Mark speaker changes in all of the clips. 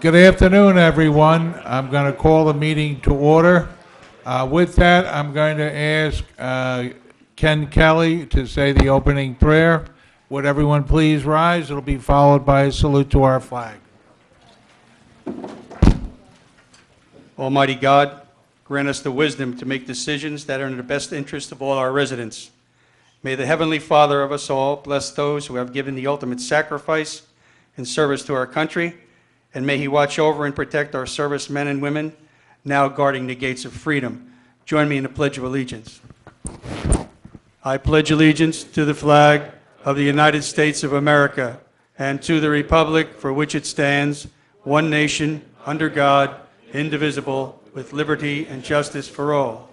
Speaker 1: Good afternoon, everyone. I'm going to call the meeting to order. Uh, With that, I'm going to ask uh, Ken Kelly to say the opening prayer. Would everyone please rise? It'll be followed by a salute to our flag.
Speaker 2: Almighty God, grant us the wisdom to make decisions that are in the best interest of all our residents. May the Heavenly Father of us all bless those who have given the ultimate sacrifice in service to our country, and may He watch over and protect our servicemen and women now guarding the gates of freedom. Join me in the Pledge of Allegiance. I pledge allegiance to the flag of the United States of America and to the republic for which it stands, one nation, under God, indivisible, with liberty and justice for all.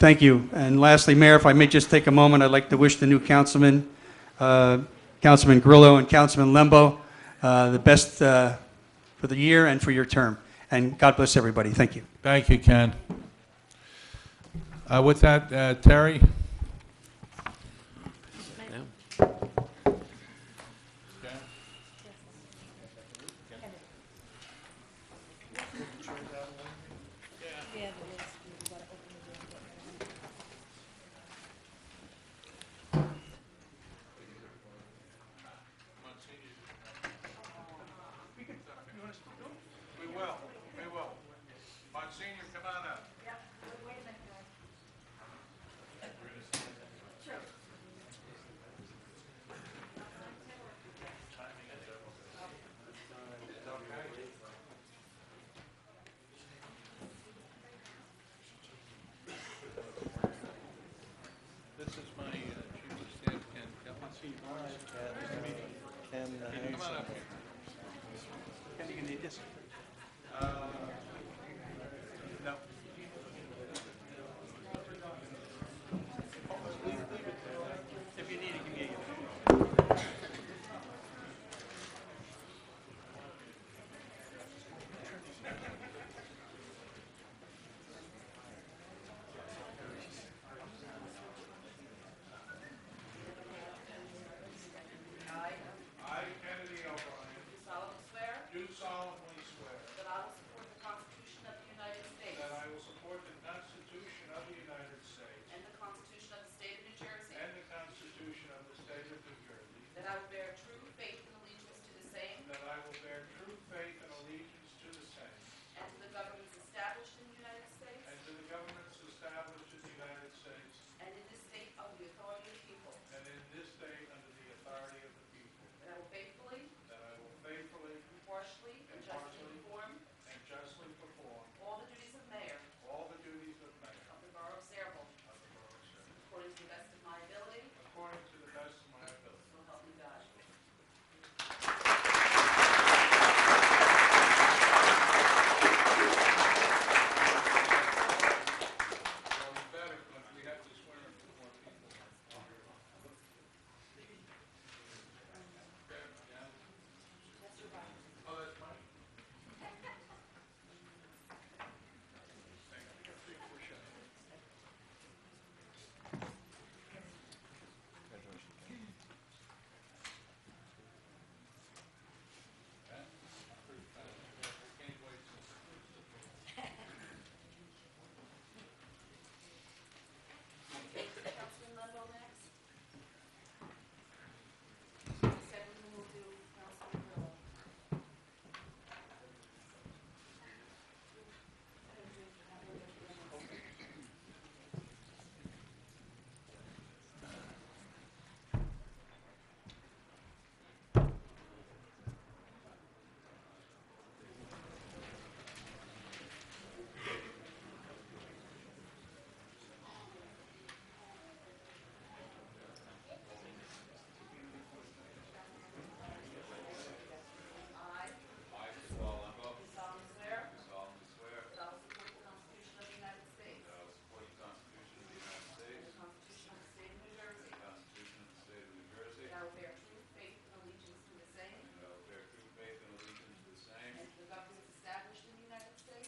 Speaker 2: Thank you. And lastly, Mayor, if I may just take a moment, I'd like to wish the new councilmen, uh, Councilman Grillo and Councilman Lembo, uh, the best uh, for the year and for your term. And God bless everybody. Thank you.
Speaker 1: Thank you, Ken. Uh, With that, uh, Terry?
Speaker 3: We will, we will. Monsignor, come on up. This is my uh, chief of staff, Ken Kelly. Monsignor, come on up here. Ken, you need this?